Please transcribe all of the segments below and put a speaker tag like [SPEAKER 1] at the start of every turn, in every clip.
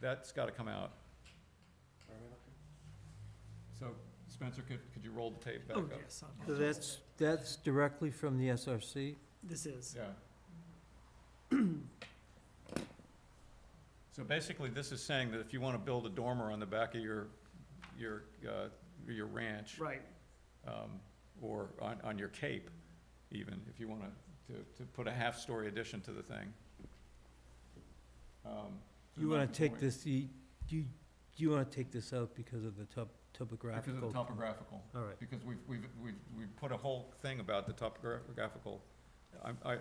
[SPEAKER 1] That's gotta come out. So Spencer, could, could you roll the tape back
[SPEAKER 2] Oh,
[SPEAKER 1] up?
[SPEAKER 2] yes, I'll-
[SPEAKER 3] So that's, that's directly from the SRC?
[SPEAKER 2] This is,
[SPEAKER 1] Yeah. So basically, this is saying that if you wanna build a dormer on the back of your, your, uh, your ranch,
[SPEAKER 2] right,
[SPEAKER 1] um, or on, on your cape even, if you want to, to put a half-story addition to the thing. Um, so
[SPEAKER 3] You wanna
[SPEAKER 1] that's the
[SPEAKER 3] take
[SPEAKER 1] point,
[SPEAKER 3] this, you, you, you wanna take this out because of the top, topographical?
[SPEAKER 1] Because of the topographical,
[SPEAKER 3] All right,
[SPEAKER 1] because we've, we've, we've, we've put a whole thing about the topographical, I'm, I,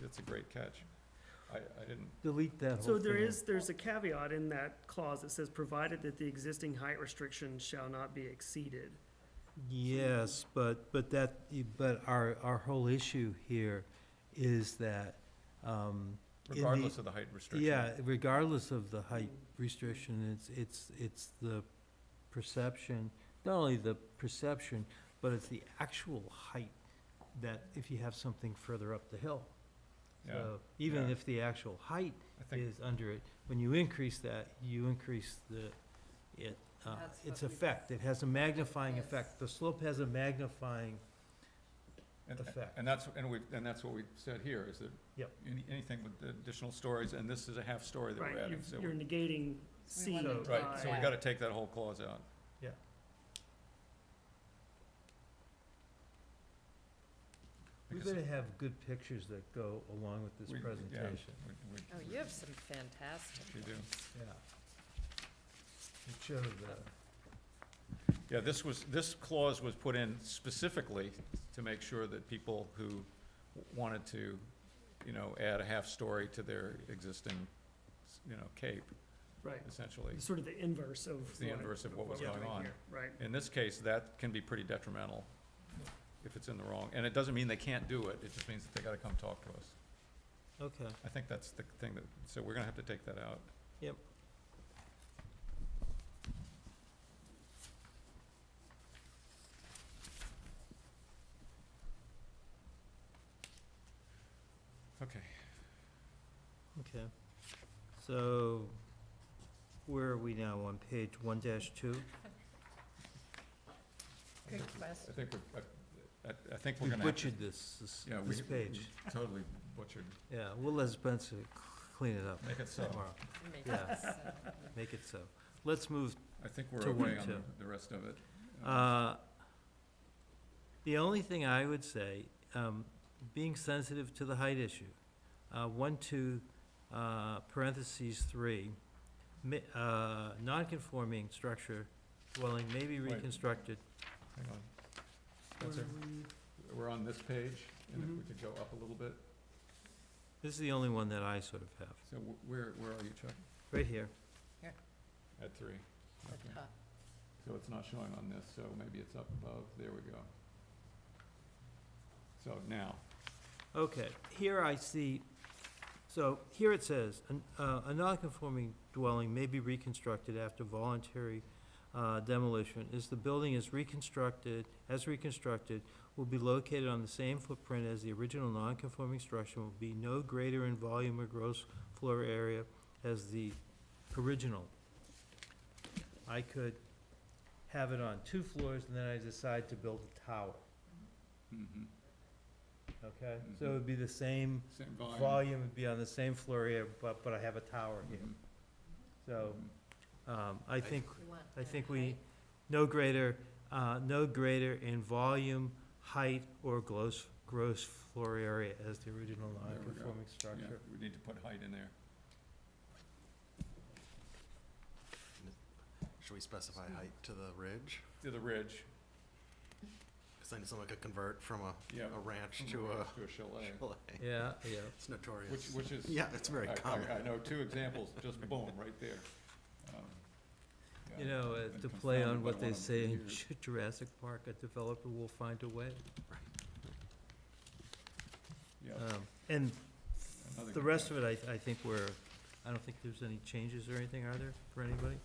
[SPEAKER 1] that's a great catch. I, I didn't,
[SPEAKER 3] delete that whole thing.
[SPEAKER 2] so there
[SPEAKER 3] out.
[SPEAKER 2] is, there's a caveat in that clause that says, provided that the existing height restriction shall not be exceeded.
[SPEAKER 3] Yes, but, but that, but our, our whole issue here is that, um, In the-
[SPEAKER 1] regardless of the height restriction.
[SPEAKER 3] yeah, regardless of the height restriction, it's, it's, it's the perception, not only the perception, but it's the actual height that if you have something further up the hill.
[SPEAKER 1] Yeah,
[SPEAKER 3] So even
[SPEAKER 1] yeah.
[SPEAKER 3] if the actual height
[SPEAKER 1] I think,
[SPEAKER 3] is under it, when you increase that, you increase the, it, uh,
[SPEAKER 4] That's
[SPEAKER 3] its
[SPEAKER 4] what we-
[SPEAKER 3] effect. It has a magnifying
[SPEAKER 4] Yes.
[SPEAKER 3] effect. The slope has a magnifying
[SPEAKER 1] and,
[SPEAKER 3] effect.
[SPEAKER 1] and that's, and we, and that's what we said here, is that
[SPEAKER 3] Yep.
[SPEAKER 1] any- anything with additional stories, and this is a half story that we're
[SPEAKER 2] Right,
[SPEAKER 1] adding,
[SPEAKER 2] you're-
[SPEAKER 1] so we
[SPEAKER 2] you're negating C
[SPEAKER 4] wanna
[SPEAKER 3] So-
[SPEAKER 1] Right, so we
[SPEAKER 2] by-
[SPEAKER 1] gotta take that whole clause out.
[SPEAKER 3] Yeah. We
[SPEAKER 1] Because
[SPEAKER 3] better have good pictures that go along with
[SPEAKER 1] we-
[SPEAKER 3] this
[SPEAKER 1] yeah,
[SPEAKER 3] presentation.
[SPEAKER 1] we- we-
[SPEAKER 4] Oh, you have some fantastic.
[SPEAKER 1] We do.
[SPEAKER 4] ones.
[SPEAKER 3] Yeah. It shows that.
[SPEAKER 1] Yeah, this was, this clause was put in specifically to make sure that people who wanted to, you know, add a half story to their existing, you know, cape,
[SPEAKER 2] Right,
[SPEAKER 1] essentially.
[SPEAKER 2] sort of the inverse of.
[SPEAKER 1] It's the inverse of what was
[SPEAKER 2] we're
[SPEAKER 1] going
[SPEAKER 2] doing
[SPEAKER 1] on.
[SPEAKER 2] here, Right,
[SPEAKER 1] In this case, that can be pretty detrimental if it's in the wrong, and it doesn't mean they can't do it, it just means that they gotta come talk to us.
[SPEAKER 3] Okay.
[SPEAKER 1] I think that's the thing that, so we're gonna have to take that out.
[SPEAKER 3] Yep.
[SPEAKER 1] Okay,
[SPEAKER 3] Okay. So where are we now? On page one dash two?
[SPEAKER 4] Good
[SPEAKER 1] I
[SPEAKER 4] question.
[SPEAKER 1] think we're, I- I, I think we're
[SPEAKER 3] We
[SPEAKER 1] gonna have to.
[SPEAKER 3] butchered this, this,
[SPEAKER 1] Yeah, we-
[SPEAKER 3] this
[SPEAKER 1] we
[SPEAKER 3] page.
[SPEAKER 1] Totally butchered,
[SPEAKER 3] Yeah, we'll let Spencer c- clean it up
[SPEAKER 1] make it so.
[SPEAKER 3] tomorrow.
[SPEAKER 4] Make
[SPEAKER 3] Yeah.
[SPEAKER 4] it so.
[SPEAKER 3] Make it so. Let's move
[SPEAKER 1] I think we're
[SPEAKER 3] To
[SPEAKER 1] okay
[SPEAKER 3] one,
[SPEAKER 1] on
[SPEAKER 3] too.
[SPEAKER 1] the, the rest of it. Um,
[SPEAKER 3] Uh, The only thing I would say, um, being sensitive to the height issue, uh, one, two, uh, parentheses, three, ma- uh, non-conforming structure dwelling may be
[SPEAKER 1] Wait.
[SPEAKER 3] reconstructed.
[SPEAKER 1] Hang on. That's
[SPEAKER 2] Where
[SPEAKER 1] it. We're on this page, and if
[SPEAKER 3] Mm-hmm.
[SPEAKER 1] we
[SPEAKER 2] Mhm.
[SPEAKER 1] could go up a little bit,
[SPEAKER 3] This is the only one that I sort of have,
[SPEAKER 1] so wh- where, where are you, Chuck?
[SPEAKER 3] right here.
[SPEAKER 1] At three. Okay.
[SPEAKER 4] The top.
[SPEAKER 1] So it's not showing on this, so maybe it's up above, there we go. So now,
[SPEAKER 3] Okay, here I see, so here it says, "An- uh, "A nonconforming dwelling may be reconstructed after voluntary uh, demolition. As the building is reconstructed, as reconstructed, will be located on the same footprint as the original nonconforming structure, will be no greater in volume or gross floor area as the original." I could have it on two floors, and then I decide to build a tower,
[SPEAKER 1] mhm,
[SPEAKER 3] okay? So it would be the same
[SPEAKER 1] same volume.
[SPEAKER 3] volume would be on the same floor area, but, but I have a tower here.
[SPEAKER 1] Mhm,
[SPEAKER 3] So,
[SPEAKER 1] mhm.
[SPEAKER 3] um, I think,
[SPEAKER 4] You want
[SPEAKER 3] I
[SPEAKER 4] that
[SPEAKER 3] think we,
[SPEAKER 4] height?
[SPEAKER 3] no greater, uh, no greater in volume, height, or gross, gross floor area as the original
[SPEAKER 1] There we go.
[SPEAKER 3] non-conforming
[SPEAKER 1] Yeah,
[SPEAKER 3] structure.
[SPEAKER 1] we need to put height in there.
[SPEAKER 5] Should we specify height to the ridge?
[SPEAKER 1] To the ridge,
[SPEAKER 5] Because then someone could convert from a,
[SPEAKER 1] yeah.
[SPEAKER 5] a ranch
[SPEAKER 1] from
[SPEAKER 5] to
[SPEAKER 1] ridge To
[SPEAKER 5] a
[SPEAKER 1] a chalet,
[SPEAKER 5] chalet.
[SPEAKER 3] Yeah, yeah.
[SPEAKER 5] It's notorious.
[SPEAKER 1] which, which is.
[SPEAKER 5] Yeah, it's very
[SPEAKER 1] I- I-
[SPEAKER 5] common.
[SPEAKER 1] I know two examples, just boom, right there. Um, yeah,
[SPEAKER 3] You know,
[SPEAKER 1] I've
[SPEAKER 3] uh,
[SPEAKER 1] been
[SPEAKER 3] to play on
[SPEAKER 1] confounded by
[SPEAKER 3] what they
[SPEAKER 1] one of
[SPEAKER 3] say in
[SPEAKER 1] yours.
[SPEAKER 3] Jurassic Park, a developer will find a way.
[SPEAKER 1] Yeah,
[SPEAKER 3] Um, and
[SPEAKER 1] another
[SPEAKER 3] the
[SPEAKER 1] good
[SPEAKER 3] rest
[SPEAKER 1] catch.
[SPEAKER 3] of it, I, I think we're, I don't think there's any changes or anything, are there, for anybody?